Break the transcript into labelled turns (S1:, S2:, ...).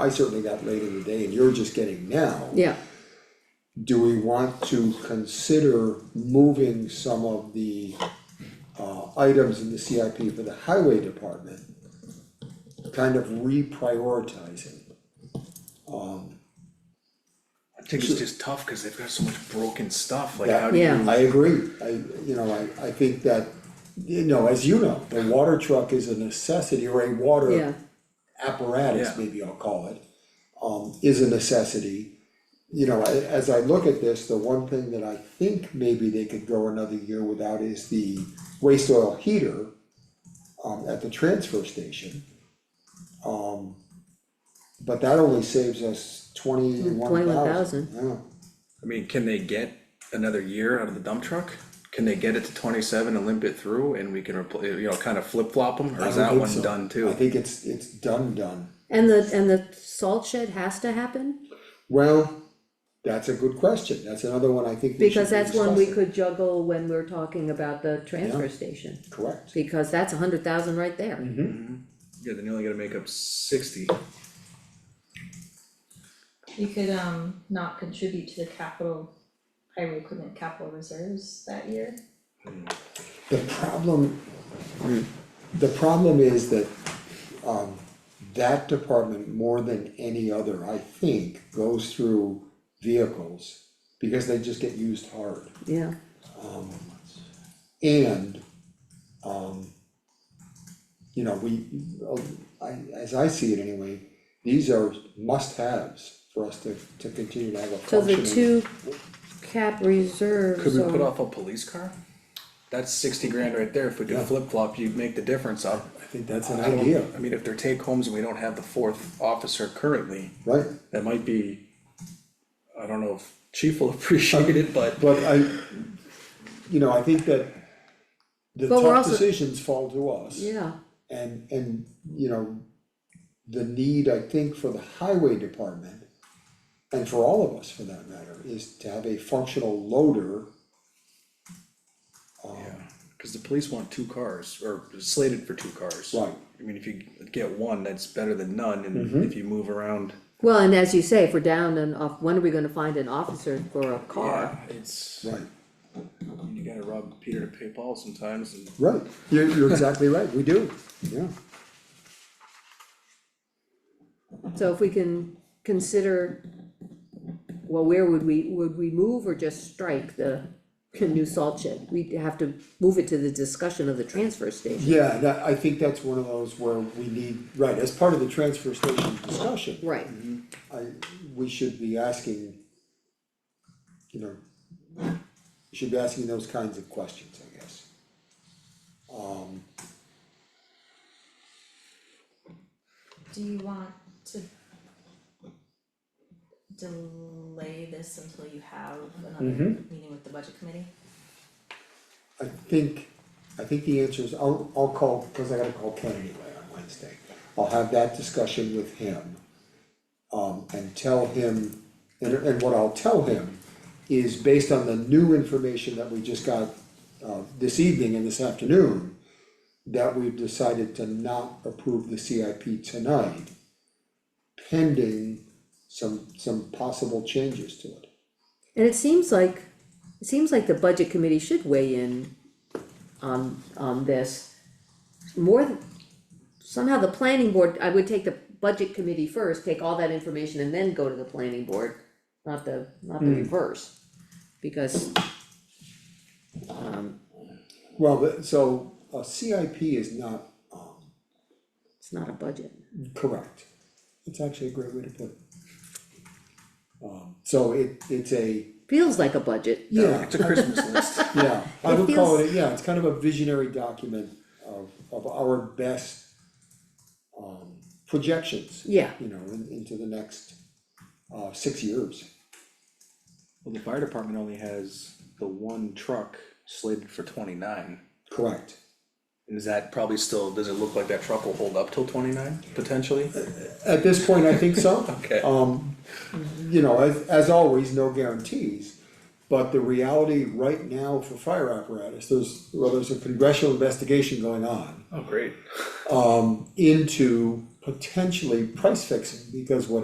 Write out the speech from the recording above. S1: I certainly got late in the day and you're just getting now.
S2: yeah,
S1: Do we want to consider moving some of the uh items in the CIP for the highway department? Kind of reprioritizing,
S3: I think it's just tough, cause they've got so much broken stuff, like
S1: Yeah.
S3: how do you?
S2: Yeah.
S1: I agree, I, you know, I I think that, you know, as you know, the water truck is a necessity or a water
S2: yeah,
S1: apparatus,
S3: Yeah.
S1: maybe I'll call it, um, is a necessity. You know, a- as I look at this, the one thing that I think maybe they could go another year without is the waste oil heater um, at the transfer station. Um, but that only saves us twenty-one thousand.
S2: 21,000.
S1: Yeah,
S3: I mean, can they get another year out of the dump truck? Can they get it to twenty-seven and limp it through and we can repl- you know, kind of flip-flop them, or
S1: I
S3: is
S1: don't
S3: that
S1: think
S3: one
S1: so.
S3: done
S1: I
S3: too?
S1: think it's, it's done, done.
S2: and the, and the salt shed has to happen,
S1: Well, that's a good question. That's another one I think we should
S2: because
S1: be
S2: that's one we
S1: discussing.
S2: could juggle when we're talking about the transfer station.
S1: Correct.
S2: Because that's a hundred thousand right there,
S3: Mm-hmm. Yeah, then you only gotta make up sixty.
S4: We could um not contribute to the capital, highway equipment capital reserves that year.
S1: The problem, the problem is that, um, that department more than any other, I think, goes through vehicles. Because they just get used hard
S2: yeah,
S1: and, um. You know, we, uh, I, as I see it anyway, these are must-haves for us to, to continue to have a
S2: so the
S1: functioning.
S2: two cap reserves
S3: Could we put
S2: are-
S3: off a police car? That's sixty grand right there, if we
S1: Yeah.
S3: could flip-flop, you'd make the difference up.
S1: I think that's an
S3: I don't-
S1: idea,
S3: I mean, if they're take homes and we don't have the fourth officer currently,
S1: right?
S3: that might be, I don't know if chief will appreciate it, but
S1: But I, you know, I think that the
S2: But we're
S1: tough
S2: also-
S1: decisions fall to us.
S2: Yeah,
S1: And, and, you know, the need, I think, for the highway department, and for all of us for that matter, is to have a functional loader.
S3: Yeah, cause the police want two cars, or slated for two cars.
S1: Right. Mm-hmm.
S3: I mean, if you get one, that's better than none, and if you move around.
S2: well, and as you say, if we're down and off, when are we gonna find an officer for a car?
S3: yeah, It's,
S1: Right.
S3: you gotta rob Peter to pay Paul sometimes, and
S1: Right, you're, you're exactly right, we do, yeah.
S2: So if we can consider, well, where would we, would we move or just strike the new salt shed? We'd have to move it to the discussion of the transfer station.
S1: Yeah, that, I think that's one of those where we need, right, as part of the transfer station discussion.
S2: Right,
S1: I, we should be asking, you know, we should be asking those kinds of questions, I guess. Um,
S4: Do you want to delay this until you have another meeting with the budget committee?
S1: I think, I think the answer is, I'll, I'll call, cause I gotta call Ken anyway on Wednesday. I'll have that discussion with him, um, and tell him, and, and what I'll tell him is based on the new information that we just got, uh, this evening and this afternoon, that we've decided to not approve the CIP tonight, pending some, some possible changes to it.
S2: and it seems like, it seems like the budget committee should weigh in on, on this. More, th- somehow the planning board, I would take the budget committee first, take all that information and then go to the planning board, not the, not the reverse. Because, um,
S1: Well, but, so, a CIP is not, um,
S2: It's not a budget.
S1: Correct. That's actually a great way to put it. Um, so it, it's a,
S2: Feels like a budget.
S1: yeah,
S3: it's a Christmas list.
S1: yeah, I
S2: It
S1: would call it, a- yeah, it's kind of a visionary document of, of our best um, projections,
S2: Yeah,
S1: you know, in- into the next, uh, six years.
S3: Well, the fire department only has the one truck slated for twenty-nine,
S1: Correct.
S3: and is that probably still, does it look like that truck will hold up till twenty-nine, potentially?
S1: At this point, I think so.
S3: Okay.
S1: Uh, Um, you know, as, as always, no guarantees, but the reality right now for fire apparatus, there's, well, there's a congressional investigation going on.
S3: Oh, great.
S1: um, into potentially price fixing, because what